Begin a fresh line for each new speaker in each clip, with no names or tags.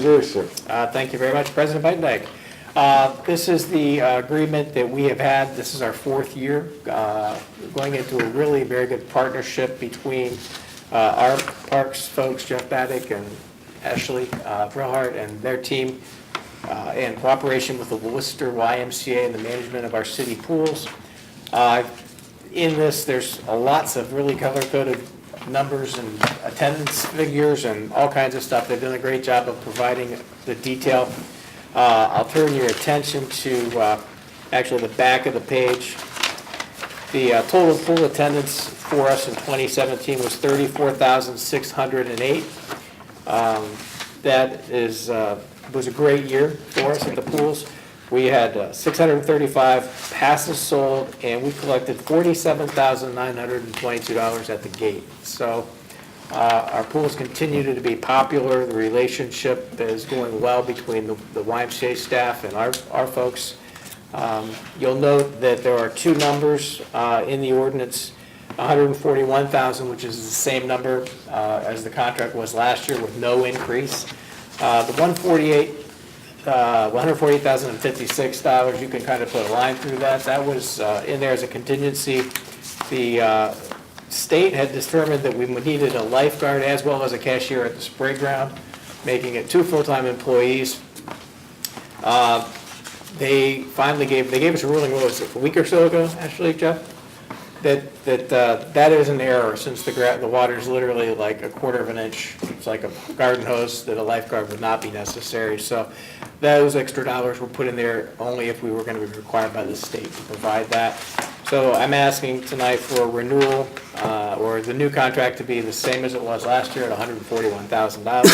Yes, sir.
Uh, Thank you very much, President Bidenbach. Uh, This is the uh, agreement that we have had, this is our fourth year, uh, going into a really very good partnership between uh, our parks folks, Jeff Baddick and Ashley uh, Brillhart and their team, uh, in cooperation with the Worcester YMCA and the management of our city pools. Uh, In this, there's lots of really color-coded numbers and attendance figures and all kinds of stuff. They've done a great job of providing the detail. Uh, I'll turn your attention to, uh, actually, the back of the page. The uh, total pool attendance for us in 2017 was 34,608. Um, That is, uh, was a great year for us at the pools. We had uh, 635 passes sold, and we collected $47,922 at the gate. So uh, our pools continue to be popular, the relationship is going well between the the YMCA staff and our our folks. Um, You'll note that there are two numbers uh, in the ordinance, 141,000, which is the same number uh, as the contract was last year with no increase. Uh, The 148, uh, $148,056, you can kind of put a line through that. That was uh, in there as a contingency. The uh, state had determined that we needed a lifeguard as well as a cashier at the spray ground, making it two full-time employees. Uh, They finally gave, they gave us a ruling, what was it, a week or so ago, actually, Jeff? That, that, uh, that is an error, since the gra, the water's literally like a quarter of an inch, it's like a garden hose, that a lifeguard would not be necessary, so those extra dollars were put in there only if we were gonna be required by the state to provide that. So I'm asking tonight for a renewal, uh, or the new contract to be the same as it was last year at hundred and forty-one thousand dollars.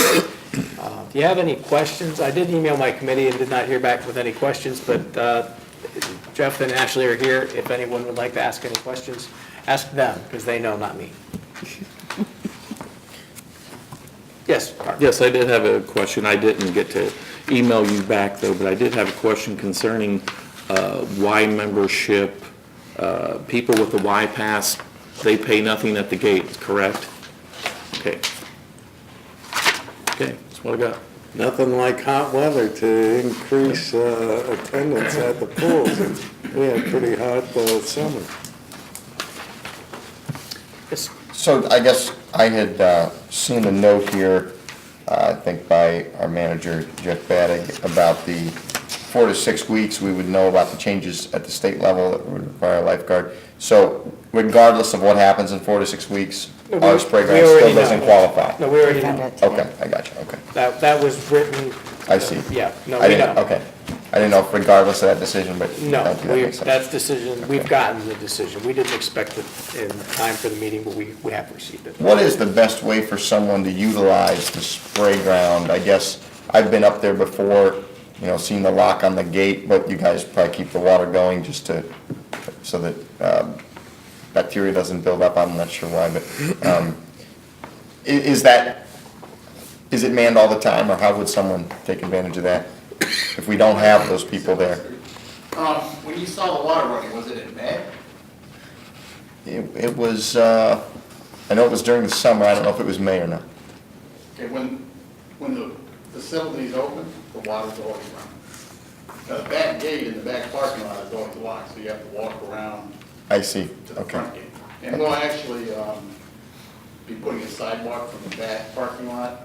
If you have any questions, I did email my committee and did not hear back with any questions, but, uh, Jeff and Ashley are here. If anyone would like to ask any questions, ask them, because they know, not me. Yes, Mark?
Yes, I did have a question. I didn't get to email you back, though, but I did have a question concerning uh, Y membership. Uh, People with the Y pass, they pay nothing at the gate, correct? Okay. Okay, that's what I got.
Nothing like hot weather to increase uh, attendance at the pools. We had a pretty hot uh, summer.
Yes.
So I guess I had uh, seen a note here, uh, I think by our manager, Jeff Baddick, about the four to six weeks, we would know about the changes at the state level that would require a lifeguard. So regardless of what happens in four to six weeks,
No, we-
our spray
we
ground
already
still
know.
doesn't qualify?
No, we already know.
Okay, I got you, okay.
That, that was written,
I see.
yeah, no,
I
we
didn't,
know.
okay. I didn't know if regardless of that decision, but
No,
thank you, that
we,
makes sense.
that's decision, we've gotten the decision. We didn't expect it in time for the meeting, but we, we have received it.
What is the best way for someone to utilize the spray ground? I guess, I've been up there before, you know, seen the lock on the gate, but you guys probably keep the water going just to, so that um, bacteria doesn't build up, I'm not sure why, but um, i- is that, is it manned all the time, or how would someone take advantage of that? If we don't have those people there?
Um, when you saw the water running, was it in May?
It it was, uh, I know it was during the summer, I don't know if it was May or not.
Okay, when, when the facility's open, the water's always running. Now, the back gate in the back parking lot is always locked, so you have to walk around
I see,
to the
okay.
front gate. And we'll actually, um, be putting a sidewalk from the back parking lot,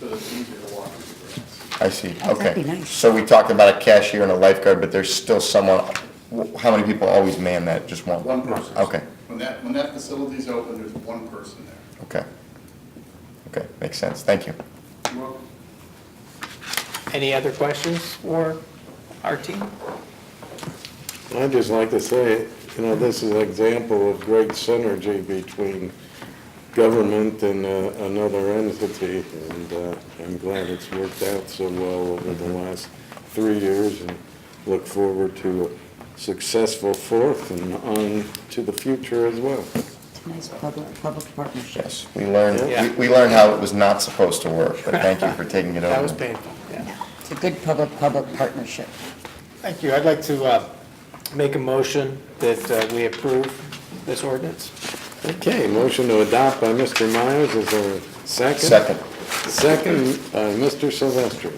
so that it's easier to walk through the grass.
I see,
Oh, that'd be
okay.
nice.
So we talked about a cashier and a lifeguard, but there's still someone, wh- how many people always man that, just one?
One person.
Okay,
When that, when that facility's open, there's one person there.
okay. Okay, makes sense, thank you.
Any other questions for our team?
I'd just like to say, you know, this is an example of great synergy between government and uh, another entity, and uh, I'm glad it's worked out so well over the last three years, and look forward to a successful fourth and on to the future as well.
It's a nice public, public partnership.
Yes, we learned,
Yeah.
we- we learned how it was not supposed to work, but thank you for taking it over.
That was painful, yeah.
It's a good public-public partnership.
Thank you. I'd like to uh, make a motion that uh, we approve this ordinance.
Okay, motion to adopt by Mr. Myers, is there a second?
Second.
Second by Mr. Silvestri.